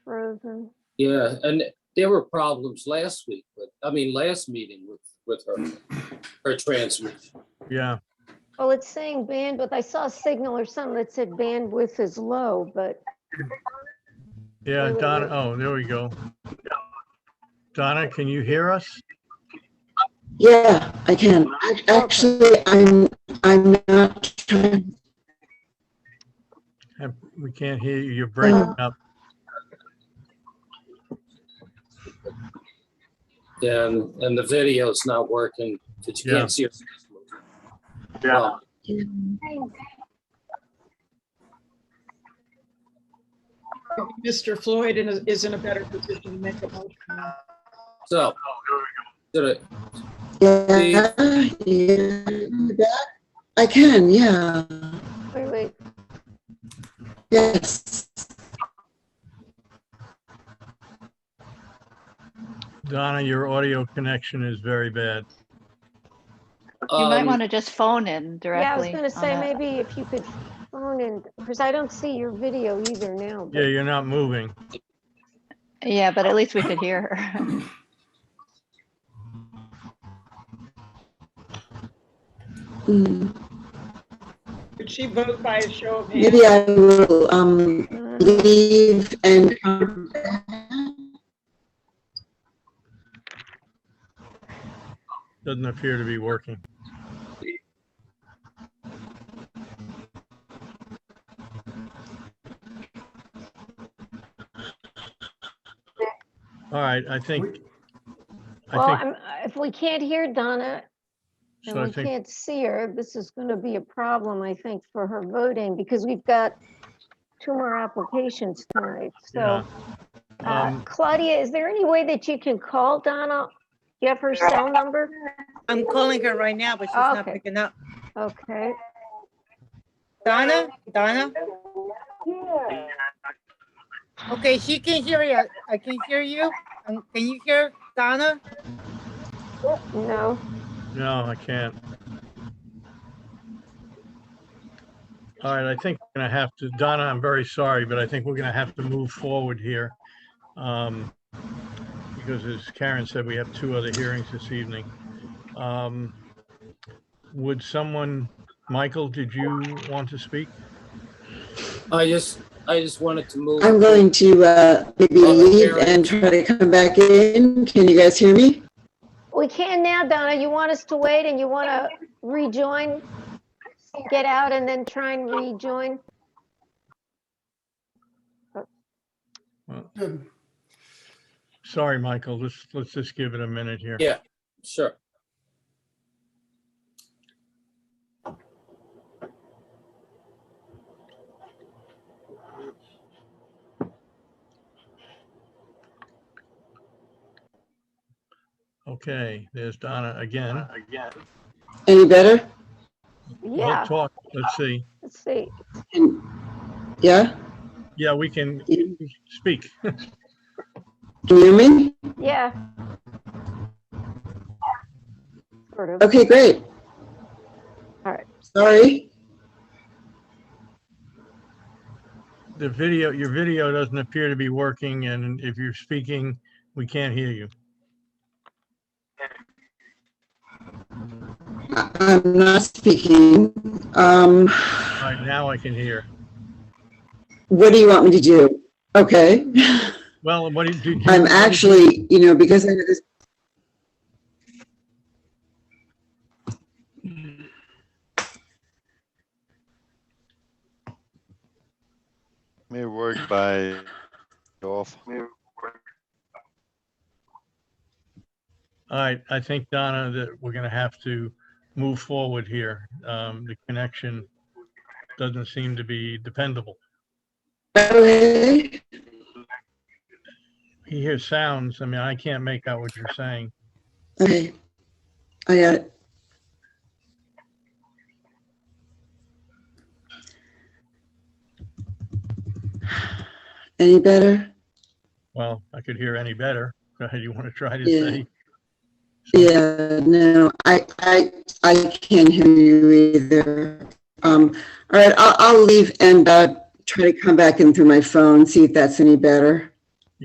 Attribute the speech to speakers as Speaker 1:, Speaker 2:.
Speaker 1: Mhm.
Speaker 2: Yeah, and there were problems last week, but, I mean, last meeting with, with her, her transmission.
Speaker 3: Yeah,
Speaker 1: Well, it's saying bandwidth. I saw a signal or something that said bandwidth is low, but
Speaker 3: yeah,
Speaker 1: Wait, wait,
Speaker 3: Donna,
Speaker 1: wait.
Speaker 3: oh, there we go. Donna, can you hear us?
Speaker 4: Yeah, I can. Ac- Actually, I'm, I'm not trying,
Speaker 3: Uh, We can't hear you, you're
Speaker 1: Uh-huh.
Speaker 3: breaking up.
Speaker 2: And, and the video's not working, because you
Speaker 3: Yeah.
Speaker 2: can't see her. face movement. Well,
Speaker 5: Mr. Floyd is is in a better position to make a motion.
Speaker 2: So, did I-
Speaker 4: yeah, yeah. I can, yeah,
Speaker 1: wait, wait,
Speaker 4: yes.
Speaker 3: Donna, your audio connection is very bad.
Speaker 6: You might
Speaker 2: um,
Speaker 6: want to just phone in directly.
Speaker 1: yeah, I was gonna
Speaker 6: on
Speaker 1: say,
Speaker 6: that.
Speaker 1: maybe if you could phone in, because I don't see your video either now. but-
Speaker 3: Yeah, you're not moving.
Speaker 6: Yeah, but at least we could hear her.
Speaker 4: Hmm,
Speaker 5: Could she vote by a show of hands?
Speaker 4: Maybe I will, um,
Speaker 1: Uh,
Speaker 4: leave and, come back.
Speaker 3: Doesn't appear to be working. All right, I think,
Speaker 1: Well,
Speaker 3: I think,
Speaker 1: I'm- if we can't hear Donna and
Speaker 3: so I
Speaker 1: we
Speaker 3: think,
Speaker 1: can't see her, this is gonna be a problem, I think, for her voting, because we've got two more applications tonight, so.
Speaker 3: yeah.
Speaker 1: uh,
Speaker 3: Um,
Speaker 1: Claudia, is there any way that you can call Donna? Do you have her cell number?
Speaker 7: I'm calling her right now, but she's not
Speaker 1: Okay.
Speaker 7: picking up.
Speaker 1: Okay.
Speaker 7: Donna, Donna? Okay, she can hear you. I can hear you. Um, Can you hear Donna?
Speaker 1: No,
Speaker 3: No, I can't. All right, I think we're gonna have to, Donna, I'm very sorry, but I think we're gonna have to move forward here. Um, because as Karen said, we have two other hearings this evening. Um, would someone, Michael, did you want to speak?
Speaker 2: I just, I just wanted to move.
Speaker 4: I'm going to, uh, maybe leave and try to come back in. Can you guys hear me?
Speaker 1: we can now, Donna. You want us to wait and you want to rejoin? Get out and then try and rejoin?
Speaker 3: Sorry, Michael, let's, let's just give it a minute here.
Speaker 2: Yeah. Sure.
Speaker 3: Okay, there's Donna again.
Speaker 4: Any better?
Speaker 3: We'll
Speaker 1: Yeah,
Speaker 3: Talk, let's see.
Speaker 1: let's see.
Speaker 4: Yeah?
Speaker 3: Yeah, we can
Speaker 4: Can
Speaker 3: speak.
Speaker 4: you hear me?
Speaker 1: Yeah. Sort of.
Speaker 4: Okay, great.
Speaker 1: All right.
Speaker 4: Sorry.
Speaker 3: The video, your video doesn't appear to be working, and if you're speaking, we can't hear you.
Speaker 4: I- I'm not speaking. Um,
Speaker 3: All right, now I can hear.
Speaker 4: what do you want me to do? Okay.
Speaker 3: Well, what did you?
Speaker 4: I'm actually, you know, because I know this.
Speaker 8: May work by off.
Speaker 3: All right, I think, Donna, that we're gonna have to move forward here. Um, the connection doesn't seem to be dependable.
Speaker 4: Okay.
Speaker 3: You hear sounds, I mean, I can't make out what you're saying.
Speaker 4: Okay. I got it. Any better?
Speaker 3: Well, I could hear any better. Go ahead, you want to try to
Speaker 4: Yeah.
Speaker 3: say?
Speaker 4: Yeah, no, I, I, I can't hear you either. Um, all right, I'll, I'll leave and, uh, try to come back in through my phone, see if that's any better.